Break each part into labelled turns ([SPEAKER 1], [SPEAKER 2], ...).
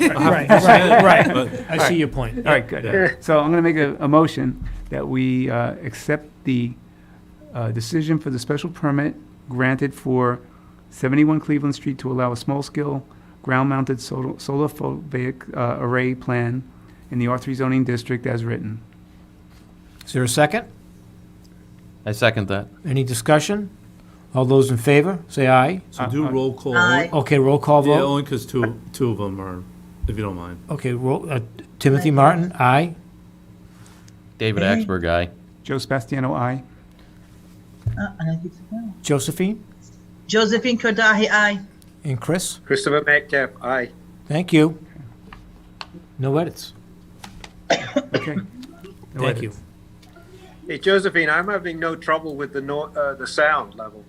[SPEAKER 1] Right, right, right.
[SPEAKER 2] But-
[SPEAKER 1] I see your point.
[SPEAKER 3] All right, good. So I'm going to make a, a motion that we uh, accept the uh, decision for the special permit granted for 71 Cleveland Street to allow a small-scale ground-mounted sol- solar photovoltaic uh, array plan in the R3 zoning district as written.
[SPEAKER 1] Is there a second?
[SPEAKER 4] I second that.
[SPEAKER 1] Any discussion? All those in favor, say aye.
[SPEAKER 2] So do
[SPEAKER 3] Uh, uh,
[SPEAKER 2] roll call.
[SPEAKER 5] Aye.
[SPEAKER 1] Okay, roll call
[SPEAKER 2] Yeah,
[SPEAKER 1] vote.
[SPEAKER 2] only because two, two of them are, if you don't mind.
[SPEAKER 1] Okay, roll, uh, Timothy Martin, aye.
[SPEAKER 4] David
[SPEAKER 5] Hey.
[SPEAKER 4] Axberg, aye.
[SPEAKER 3] Joe Sebastiano, aye.
[SPEAKER 5] Uh, I think it's a no.
[SPEAKER 1] Josephine
[SPEAKER 5] Josephine Kordahi, aye.
[SPEAKER 1] and Chris,
[SPEAKER 6] Christopher Metcalf, aye.
[SPEAKER 1] thank you. No edits.
[SPEAKER 3] Okay. No
[SPEAKER 1] Thank you.
[SPEAKER 3] edits.
[SPEAKER 6] Hey, Josephine, I'm having no trouble with the no, uh, the sound level.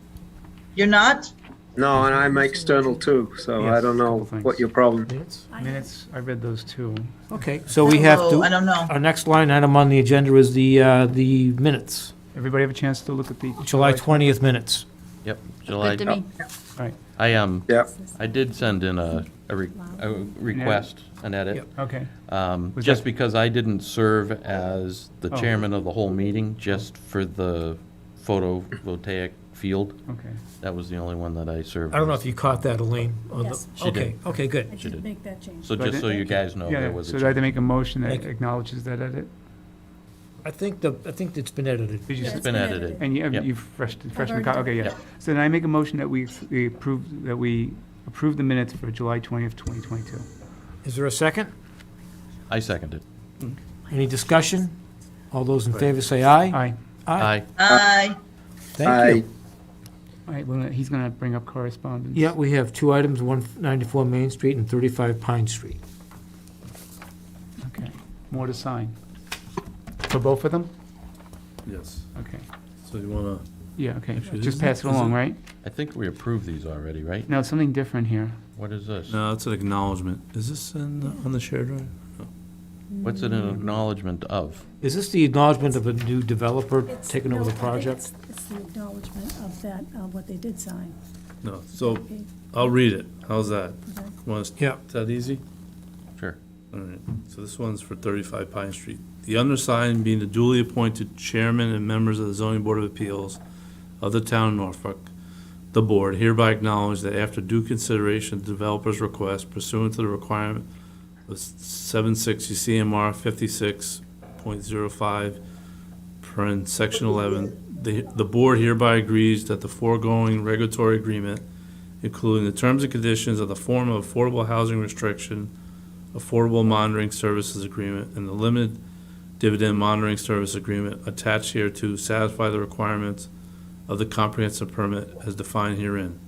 [SPEAKER 5] You're not?
[SPEAKER 6] No, and I'm external too, so I
[SPEAKER 3] Yes,
[SPEAKER 6] don't know
[SPEAKER 3] couple things.
[SPEAKER 6] what your problem.
[SPEAKER 1] Minutes?
[SPEAKER 3] Minutes, I read those too.
[SPEAKER 1] Okay, so we have
[SPEAKER 5] Hello, I
[SPEAKER 1] to, Uh,
[SPEAKER 5] don't know.
[SPEAKER 1] our next line item on the agenda is the, uh, the minutes,
[SPEAKER 3] Everybody have a chance to look at the?
[SPEAKER 1] July 20th minutes.
[SPEAKER 4] Yep, July.
[SPEAKER 7] Good to me.
[SPEAKER 4] I, um,
[SPEAKER 6] Yeah,
[SPEAKER 4] I did send in a, a re- a request, an edit.
[SPEAKER 3] Okay,
[SPEAKER 4] Um,
[SPEAKER 3] Was
[SPEAKER 4] Just
[SPEAKER 3] that-
[SPEAKER 4] because I didn't serve as the
[SPEAKER 3] Oh.
[SPEAKER 4] chairman of the whole meeting, just for the photovoltaic field.
[SPEAKER 3] okay.
[SPEAKER 4] That was the only one that I served.
[SPEAKER 1] I don't know
[SPEAKER 4] as.
[SPEAKER 1] if you caught that, Elaine. on the-
[SPEAKER 7] Yes.
[SPEAKER 4] She did.
[SPEAKER 1] Okay, okay,
[SPEAKER 7] I
[SPEAKER 1] good.
[SPEAKER 4] She did.
[SPEAKER 7] did make that change.
[SPEAKER 4] So
[SPEAKER 3] So I
[SPEAKER 4] just so
[SPEAKER 3] didn't-
[SPEAKER 4] you guys know, there
[SPEAKER 3] Yeah,
[SPEAKER 4] was
[SPEAKER 3] so
[SPEAKER 4] a
[SPEAKER 3] I'd like to
[SPEAKER 4] change.
[SPEAKER 3] make a motion
[SPEAKER 1] Thank
[SPEAKER 3] that
[SPEAKER 1] you.
[SPEAKER 3] acknowledges that edit.
[SPEAKER 1] I think the, I think it's been edited.
[SPEAKER 3] Did you,
[SPEAKER 7] Yeah,
[SPEAKER 4] It's been edited.
[SPEAKER 3] and you,
[SPEAKER 4] Yep.
[SPEAKER 3] you've freshed, freshened the,
[SPEAKER 7] already
[SPEAKER 3] co- okay,
[SPEAKER 7] done
[SPEAKER 3] yeah. So then I make a motion that we ex- we approve, that we approve the minutes for July twentieth, twenty twenty-two.
[SPEAKER 1] Is there a second?
[SPEAKER 4] I seconded.
[SPEAKER 1] Any discussion? All those in favor say aye.
[SPEAKER 3] Aye.
[SPEAKER 4] Aye.
[SPEAKER 5] Aye.
[SPEAKER 1] Thank
[SPEAKER 6] aye.
[SPEAKER 1] you.
[SPEAKER 3] All right, well, he's gonna bring up correspondence.
[SPEAKER 1] Yeah, we have two items, 194 Main Street and 35 Pine Street.
[SPEAKER 3] Okay, more to sign. For both of them?
[SPEAKER 2] Yes.
[SPEAKER 3] Okay,
[SPEAKER 2] So you want to,
[SPEAKER 3] yeah, okay,
[SPEAKER 2] Actually,
[SPEAKER 3] just
[SPEAKER 2] isn't-
[SPEAKER 3] pass it
[SPEAKER 2] is
[SPEAKER 3] along,
[SPEAKER 2] it-
[SPEAKER 3] right?
[SPEAKER 4] I think we approved these already, right?
[SPEAKER 3] No, it's something different here.
[SPEAKER 4] What is this?
[SPEAKER 2] no, it's an acknowledgement. Is this in, the- on the shared drive?
[SPEAKER 4] What's it
[SPEAKER 7] Mm.
[SPEAKER 4] an acknowledgement of?
[SPEAKER 1] Is this the acknowledgement of a new developer taking over the project?
[SPEAKER 7] It's the acknowledgement of that, of what they did sign.
[SPEAKER 2] No, so I'll read it. How's that? Want,
[SPEAKER 1] Yeah.
[SPEAKER 2] is that easy?
[SPEAKER 4] Sure.
[SPEAKER 2] All right, so this one's for 35 Pine Street. The undersigned being the duly appointed chairman and members of the zoning board of appeals of the town of Norfolk, the board hereby acknowledge that after due consideration of the developer's request pursuant to the requirement of 760 CMR 56.05, print section 11, the, the board hereby agrees that the foregoing regulatory agreement, including the terms and conditions of the form of affordable housing restriction Affordable Monitoring Services Agreement and the Limited Dividend Monitoring Service Agreement attached here to satisfy the requirements of the comprehensive permit as defined herein.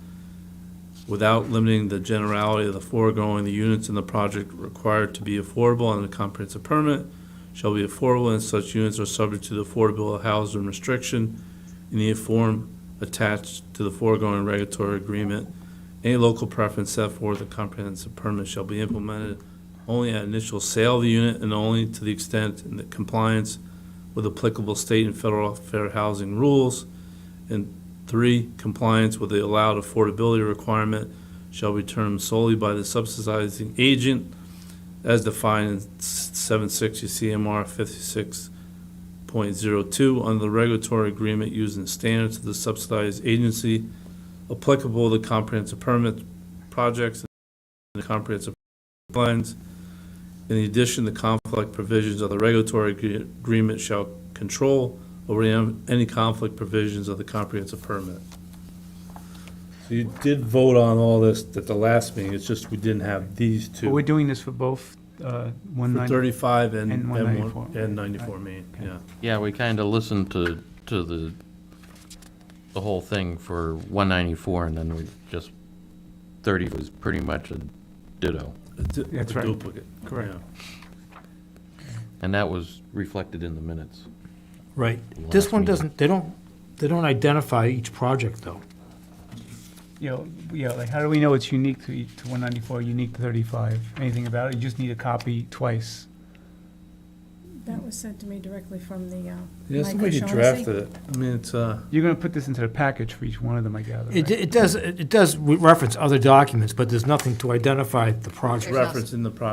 [SPEAKER 2] Without limiting the generality of the foregoing, the units in the project required to be affordable under the comprehensive permit shall be affordable and such units are subject to the affordable housing restriction in the form attached to the foregoing regulatory agreement. Any local preference set forth in the comprehensive permit shall be implemented only at initial sale of the unit and only to the extent in the compliance with applicable state and federal fair housing rules. And three, compliance with the allowed affordability requirement shall be determined solely by the subsidizing agent as defined in seven sixty CMR fifty-six point zero two under the regulatory agreement using standards of the subsidized agency applicable to comprehensive permit projects and the comprehensive plans in addition, the conflict provisions of the regulatory agree- agreement shall control over am- any conflict provisions of the comprehensive permit. So you did vote on all this at the last meeting, it's just we didn't have these
[SPEAKER 3] But we're
[SPEAKER 2] two.
[SPEAKER 3] doing this for both, uh, one
[SPEAKER 2] For
[SPEAKER 3] nine.
[SPEAKER 2] thirty-five and,
[SPEAKER 3] and
[SPEAKER 2] and one-
[SPEAKER 3] 194.
[SPEAKER 2] and ninety-four Main,
[SPEAKER 3] Okay.
[SPEAKER 2] yeah.
[SPEAKER 4] Yeah, we kind of listened to, to the, the whole thing for 194, and then we just, 30 was pretty much a ditto.
[SPEAKER 2] It's a-
[SPEAKER 3] That's
[SPEAKER 2] it's a
[SPEAKER 3] right.
[SPEAKER 2] duplicate,
[SPEAKER 3] Correct.
[SPEAKER 2] yeah.
[SPEAKER 4] And that was reflected in the minutes.
[SPEAKER 1] Right. This one doesn't, they don't, they don't identify each project, though.
[SPEAKER 3] You know, yeah, like, how do we know it's unique to, each- to one ninety-four, unique to thirty-five? Anything about it? You just need a copy twice.
[SPEAKER 7] That was sent to me directly from the, uh,
[SPEAKER 2] Yeah,
[SPEAKER 7] Michael
[SPEAKER 2] somebody
[SPEAKER 7] Shaughnessy.
[SPEAKER 2] drafted it, I mean, it's, uh,
[SPEAKER 3] You're gonna put this into the package for each one of them, I gather,
[SPEAKER 1] It,
[SPEAKER 3] right?
[SPEAKER 1] it does, it does reference other documents, but there's nothing to identify the project.
[SPEAKER 2] referenced in the project.